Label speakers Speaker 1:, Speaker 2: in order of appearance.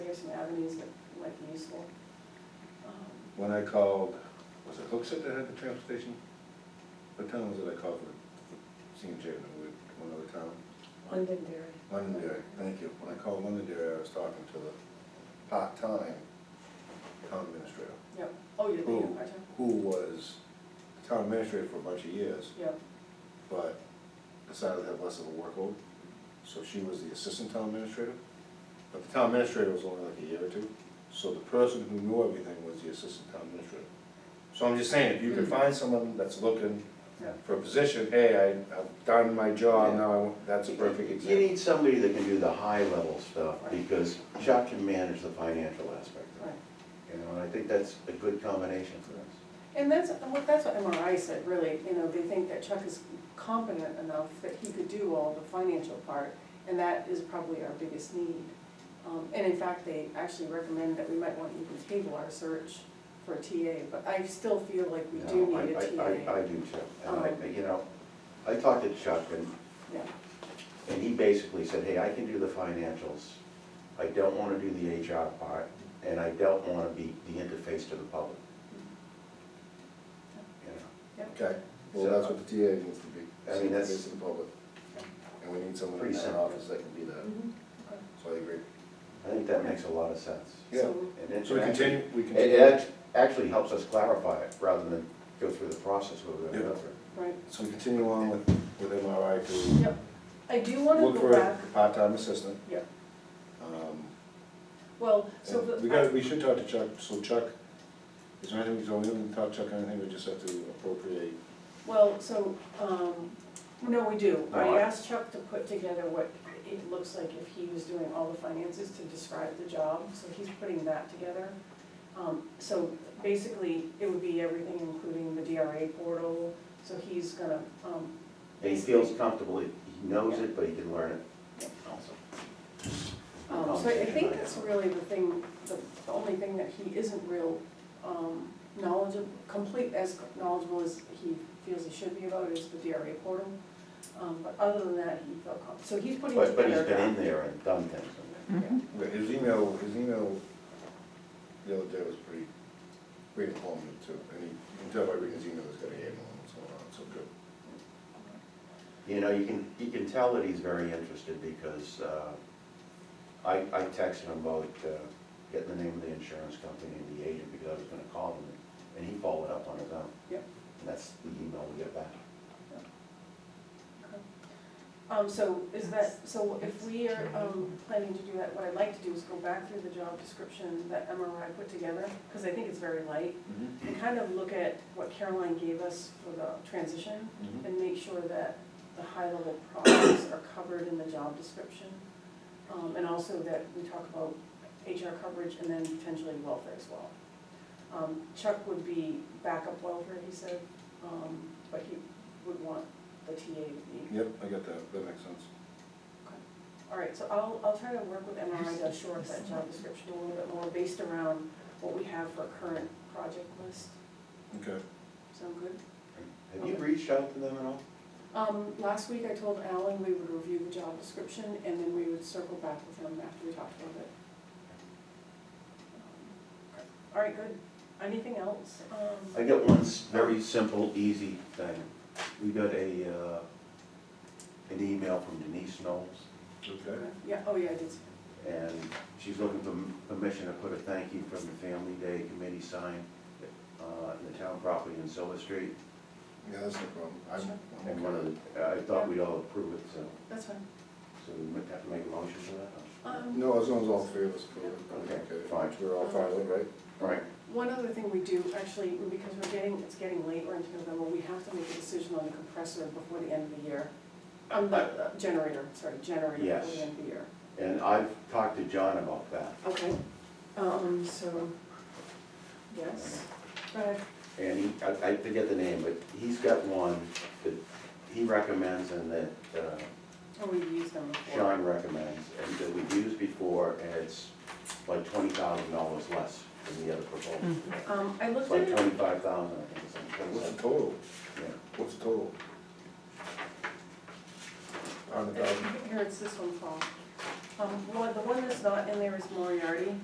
Speaker 1: there's some avenues that might be useful. Um,
Speaker 2: When I called, was it Hooksett that had the transfer station? What town was it I called for senior chairman, one other town?
Speaker 3: Londonderry.
Speaker 2: Londonderry, thank you. When I called Londonderry, I was talking to the part-time town administrator,
Speaker 1: Yep, oh, you're thinking of
Speaker 2: Who?
Speaker 1: part-time?
Speaker 2: who was town administrator for a bunch of years,
Speaker 1: Yep,
Speaker 2: but decided to have less of a workload. So she was the assistant town administrator, but the town administrator was only like a year or two. So the person who knew everything was the assistant town administrator. So I'm just saying, if you can
Speaker 4: Hmm.
Speaker 2: find someone that's looking
Speaker 1: yep.
Speaker 2: for a position, hey, I, I've done my job,
Speaker 4: Yeah.
Speaker 2: now I, want- that's a perfect
Speaker 4: You
Speaker 2: example.
Speaker 4: need somebody that can do the high-level stuff,
Speaker 1: Right.
Speaker 4: because Chuck can manage the financial aspect of
Speaker 1: Right.
Speaker 4: it. You know, and I think that's a good combination for us.
Speaker 1: And that's, what- that's what MRI said, really, you know, they think that Chuck is competent enough that he could do all the financial part, and that is probably our biggest need. Um, and in fact, they actually recommend that we might want to even table our search for a TA, but I still feel like we do
Speaker 4: No, I-
Speaker 1: need a
Speaker 4: I- I,
Speaker 1: TA.
Speaker 4: I do too, and I,
Speaker 1: Um,
Speaker 4: you know, I talked to Chuck, and,
Speaker 1: Yeah,
Speaker 4: and he basically said, hey, I can do the financials, I don't wanna do the HR part, and I don't wanna be the interface to the public.
Speaker 1: Mm-hmm.
Speaker 4: You know?
Speaker 2: Okay, well, that's what the TA needs to be.
Speaker 4: I mean, that's-
Speaker 2: Service to the public. And we need someone in
Speaker 4: Pretty
Speaker 2: that
Speaker 4: simple.
Speaker 2: office that can do that,
Speaker 4: Mm-hmm.
Speaker 1: Mhm.
Speaker 2: so I agree.
Speaker 4: I think that makes a lot of sense.
Speaker 2: Yeah.
Speaker 1: So,
Speaker 4: And it-
Speaker 2: So we continue, we
Speaker 4: It,
Speaker 2: continue.
Speaker 4: it act- actually helps us clarify it, rather than go through the process we're gonna go
Speaker 2: Yeah.
Speaker 4: through.
Speaker 1: Right,
Speaker 2: So we continue on with, with MRI to
Speaker 1: yep. I do want
Speaker 2: look
Speaker 1: to
Speaker 2: for
Speaker 1: go
Speaker 2: a
Speaker 1: back,
Speaker 2: part-time assistant.
Speaker 1: Yep.
Speaker 2: Um,
Speaker 1: well, so
Speaker 2: and
Speaker 1: the.
Speaker 2: We got, we should talk to Chuck, so Chuck, is there anything, so we haven't talked to Chuck, anything, we just have to appropriate.
Speaker 1: Well, so, um, no, we do.
Speaker 4: No,
Speaker 1: I
Speaker 4: I-
Speaker 1: asked Chuck to put together what it looks like if he was doing all the finances to describe the job, so he's putting that together. Um, so basically, it would be everything, including the DRA portal, so he's gonna, um,
Speaker 4: And he feels comfortable, he he knows it, but he can learn it also. Oh,
Speaker 1: um, so I think that's really the thing, the the only thing that he isn't real, um, knowledgeable, complete, as knowledgeable as he feels he should be about is the DRA portal. Um, but other than that, he felt com, so he's putting together.
Speaker 4: But, but he's been in there and done things in
Speaker 2: But His email, his email the other day was pretty, pretty informative too, and he, you can tell by reading his email, he's got a handle on what's going on, so good.
Speaker 4: there. You know, you can, you can tell that he's very interested because, uh, I, I texted him about, uh, getting the name of the insurance company and the agent because I was gonna call him and he followed up on his own.
Speaker 1: Yep.
Speaker 4: And that's the email we get back.
Speaker 1: Um, so is that, so if we are, um, planning to do that, what I'd like to do is go back through the job description that MRI put together, because I think it's very light, and kind of look at what Caroline gave us for the transition,
Speaker 2: Mhm.
Speaker 1: and make sure that the high-level problems are covered in the job description. Um, and also that we talk about HR coverage and then potentially welfare as well. Um, Chuck would be backup welfare, he said, um, but he would want the TA to be
Speaker 2: Yep, I get that, that makes sense.
Speaker 1: all right, so I'll, I'll try to work with MRI to shore up that job description a little bit more based around what we have for current project list.
Speaker 2: Okay,
Speaker 1: Sound good?
Speaker 4: Have you reached out to them at all?
Speaker 1: Um, last week I told Alan we would review the job description and then we would circle back with him after we talked about it. Um, All right, good. Anything else? Um,
Speaker 4: I got one s- very simple, easy thing. We got a, uh, an email from Denise Knowles,
Speaker 2: okay.
Speaker 1: Yeah, oh yeah, I did. see.
Speaker 4: and she's looking for m- permission to put a thank you from the Family Day Committee sign uh, in the town property in Silver Street.
Speaker 2: Yeah, that's no problem.
Speaker 1: Sure.
Speaker 2: I'm,
Speaker 4: And
Speaker 2: I'm
Speaker 4: one
Speaker 2: okay.
Speaker 4: of the, I thought we'd all approve it, so,
Speaker 1: That's fine.
Speaker 4: so we might have to make a motion for that.
Speaker 1: Um,
Speaker 2: No, as long as all three of us approve
Speaker 4: Okay,
Speaker 2: it. Okay,
Speaker 4: fine.
Speaker 2: We're all fine with it, right?
Speaker 4: Right.
Speaker 1: One other thing we do, actually, because we're getting, it's getting late, we're into November, we have to make a decision on the compressor before the end of the year. Um, the generator, sorry, generator before
Speaker 4: Yes.
Speaker 1: the end of the year.
Speaker 4: And I've talked to John about that,
Speaker 1: Okay, um, so, yes, but,
Speaker 4: and he, I, I forget the name, but he's got one that he recommends and that, uh,
Speaker 1: oh, we've used them before.
Speaker 4: Sean recommends, and that we've used before, and it's like twenty thousand dollars less than the other proposal.
Speaker 1: Um, I
Speaker 4: It's
Speaker 1: looked at
Speaker 4: like
Speaker 1: it,
Speaker 4: twenty-five thousand, I think, it's
Speaker 2: What's
Speaker 4: like,
Speaker 2: the total?
Speaker 4: yeah.
Speaker 2: What's the total? Hundred thousand.
Speaker 1: here, it's this one, Paul. Um, one, the one that's not in there is Moriarty.